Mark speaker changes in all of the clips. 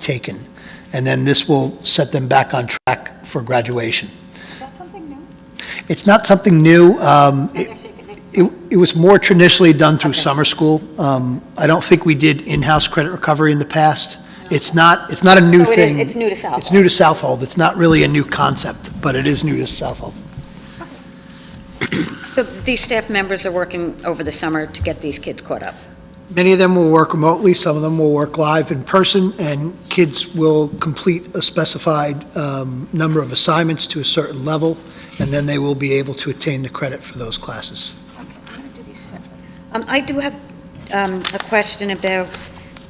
Speaker 1: taken. And then this will set them back on track for graduation.
Speaker 2: That's something new.
Speaker 1: It's not something new. Um, it-
Speaker 2: Actually, it could make-
Speaker 1: It it was more traditionally done through
Speaker 2: Okay.
Speaker 1: summer school. Um, I don't think we did in-house credit recovery in the past. It's not, it's not a new
Speaker 2: So it is-
Speaker 1: thing.
Speaker 2: it's new to Southhold.
Speaker 1: It's new to Southold. It's not really a new concept, but it is new to Southold.
Speaker 2: So these staff members are working over the summer to get these kids caught up.
Speaker 1: Many of them will work remotely, some of them will work live in person, and kids will complete a specified um, number of assignments to a certain level, and then they will be able to attain the credit for those classes.
Speaker 2: Um, I do have um, a question about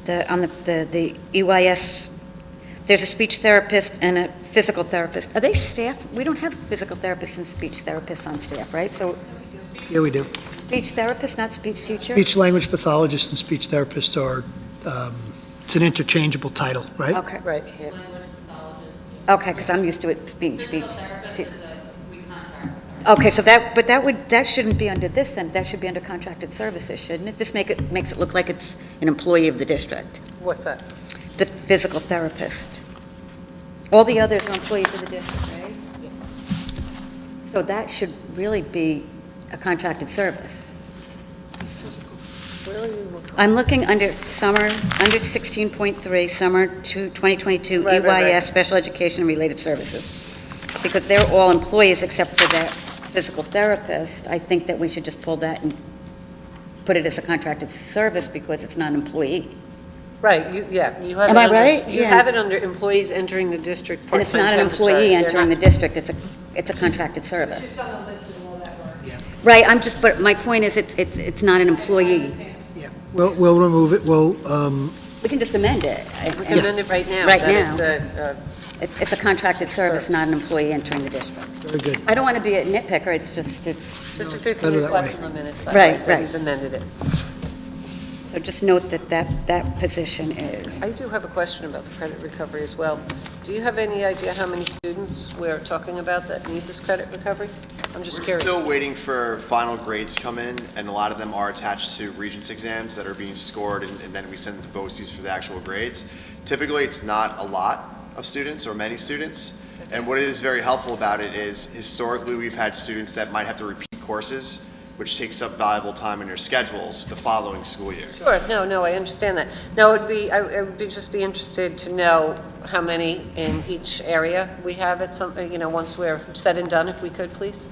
Speaker 2: the, on the, the the EYS, there's a speech therapist and a physical therapist. Are they staff? We don't have physical therapists and speech therapists on staff, right? So
Speaker 1: Yeah, we do.
Speaker 2: speech therapist, not speech teacher?
Speaker 1: Speech language pathologist and speech therapist are, um, it's an interchangeable title, right?
Speaker 2: Okay. Right. Okay, because I'm used to it being speech. Okay, so that, but that would, that shouldn't be under this, then, that should be under contracted services, shouldn't it? This make it, makes it look like it's an employee of the district,
Speaker 3: What's that?
Speaker 2: the physical therapist. All the others are employees of the district, right? So that should really be a contracted service.
Speaker 3: Where are you?
Speaker 2: I'm looking under summer, under 16.3, summer to 2022
Speaker 3: Right, right, right.
Speaker 2: EYS E Special Education and Related Services. Because they're all employees except for that physical therapist, I think that we should just pull that and put it as a contracted service because it's not an employee.
Speaker 3: Right, you, yeah, you have it
Speaker 2: Am I
Speaker 3: under-
Speaker 2: right?
Speaker 3: You
Speaker 2: Yeah.
Speaker 3: have it under employees entering the district
Speaker 2: And it's
Speaker 3: part-time
Speaker 2: not an
Speaker 3: temporary.
Speaker 2: employee
Speaker 3: They're
Speaker 2: entering the
Speaker 3: not-
Speaker 2: district, it's a, it's a contracted service. Right, I'm just, but my point is, it's, it's it's not an employee.
Speaker 1: Yeah. We'll, we'll remove it, we'll, um,
Speaker 2: We can just amend it.
Speaker 3: We can amend it right now.
Speaker 2: Right
Speaker 3: that it's uh,
Speaker 2: now.
Speaker 3: a- a-
Speaker 2: It's it's a contracted service,
Speaker 3: Service.
Speaker 2: not an employee entering the district.
Speaker 1: very good.
Speaker 2: I don't want to be a nitpicker, it's just, it's-
Speaker 3: District 15
Speaker 1: better
Speaker 3: is
Speaker 1: that
Speaker 3: left
Speaker 1: way.
Speaker 3: in the minutes. that
Speaker 2: Right,
Speaker 3: way,
Speaker 2: right.
Speaker 3: We've amended it.
Speaker 2: so just note that that, that position is.
Speaker 3: I do have a question about the credit recovery as well. Do you have any idea how many students we're talking about that need this credit recovery? I'm just
Speaker 4: We're
Speaker 3: curious.
Speaker 4: still waiting for final grades come in, and a lot of them are attached to Regents exams that are being scored, and and then we send them to BOCES for the actual grades. Typically, it's not a lot of students or many students, and what is very helpful about it is historically, we've had students that might have to repeat courses, which takes up valuable time in their schedules the following school year.
Speaker 3: Sure, no, no, I understand that. No, it'd be, I I would be, just be interested to know how many in each area we have at some, you know, once we're said and done, if we could, please?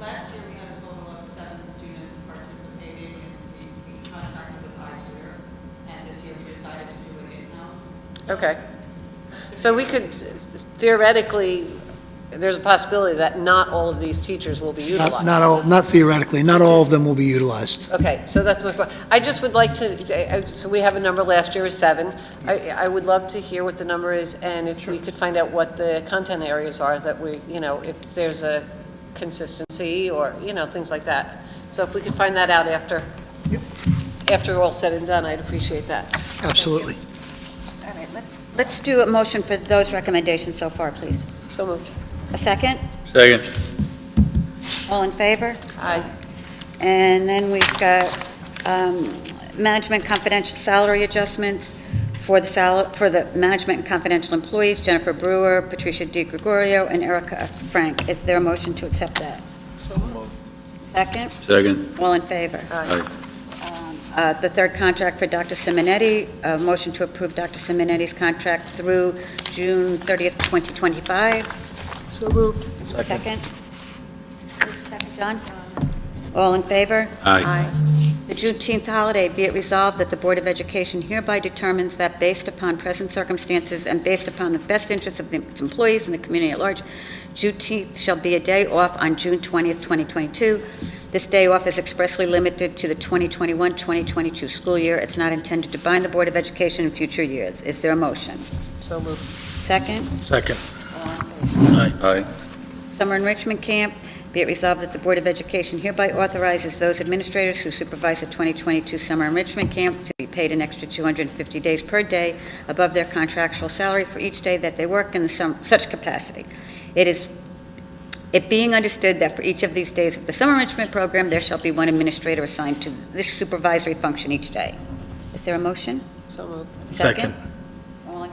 Speaker 5: Last year, we had a total of seven students participating, and we we contracted with iTutor, and this year we decided to do it in-house.
Speaker 3: Okay. So we could theoretically, there's a possibility that not all of these teachers will be
Speaker 1: Not
Speaker 3: utilized.
Speaker 1: not all, not theoretically, not all of them will be utilized.
Speaker 3: Okay, so that's my, que- I just would like to, I- I- so we have a number last year of seven. I, I would love to hear what the number is, and if we could find out what the content areas are that we, you know, if there's a consistency or, you know, things like that. So if we could find that out after, after all said and done, I'd appreciate that.
Speaker 1: Absolutely.
Speaker 2: All right, let's, let's do a motion for those recommendations so far, please.
Speaker 3: So moved.
Speaker 2: A second?
Speaker 6: Second.
Speaker 2: All in favor?
Speaker 3: Aye.
Speaker 2: And then we've got um, management confidential salary adjustments for the sal, for the management and confidential employees, Jennifer Brewer, Patricia Di Gregorio, and Erica Frank. Is there a motion to accept that? Second?
Speaker 6: Second.
Speaker 2: All in favor?
Speaker 6: Aye.
Speaker 2: Uh, The third contract for Dr. Simonetti, a motion to approve Dr. Simonetti's contract through June 30th, 2025.
Speaker 3: So moved.
Speaker 2: Second? Second, John? All in favor?
Speaker 6: Aye.
Speaker 2: The Juneteenth holiday, be it resolved that the Board of Education hereby determines that based upon present circumstances and based upon the best interests of the- its employees and the community at large, Juneteenth shall be a day off on June 20th, 2022. This day off is expressly limited to the 2021-2022 school year. It's not intended to bind the Board of Education in future years. Is there a motion?
Speaker 3: So moved.
Speaker 2: Second?
Speaker 6: Second. Aye. Aye.
Speaker 2: Summer enrichment camp, be it resolved that the Board of Education hereby authorizes those administrators who supervise a 2022 summer enrichment camp to be paid an extra 250 days per day above their contractual salary for each day that they work in the sum- such capacity. It is, it being understood that for each of these days of the summer enrichment program, there shall be one administrator assigned to this supervisory function each day. Is there a motion?
Speaker 3: So moved.
Speaker 6: Second.